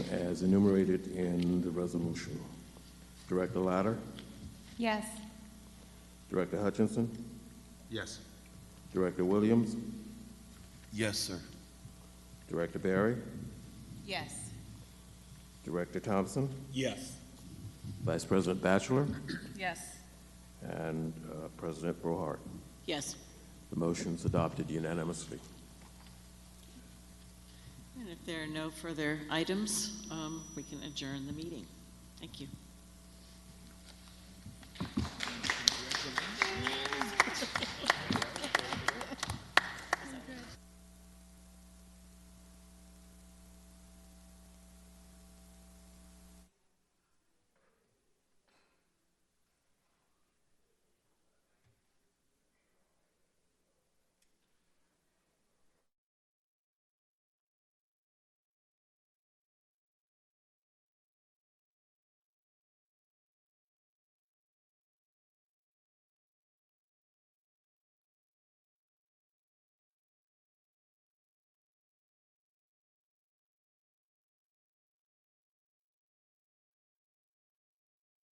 as enumerated in the resolution. Director Latta, Yes. Director Hutchinson, Yes. Director Williams, Yes, sir. Director Barry, Yes. Director Thompson, Yes. Vice President Batchelor, Yes. and uh, President Brohart. Yes. The motion's adopted unanimously. And if there are no further items, um, we can adjourn the meeting. Thank you.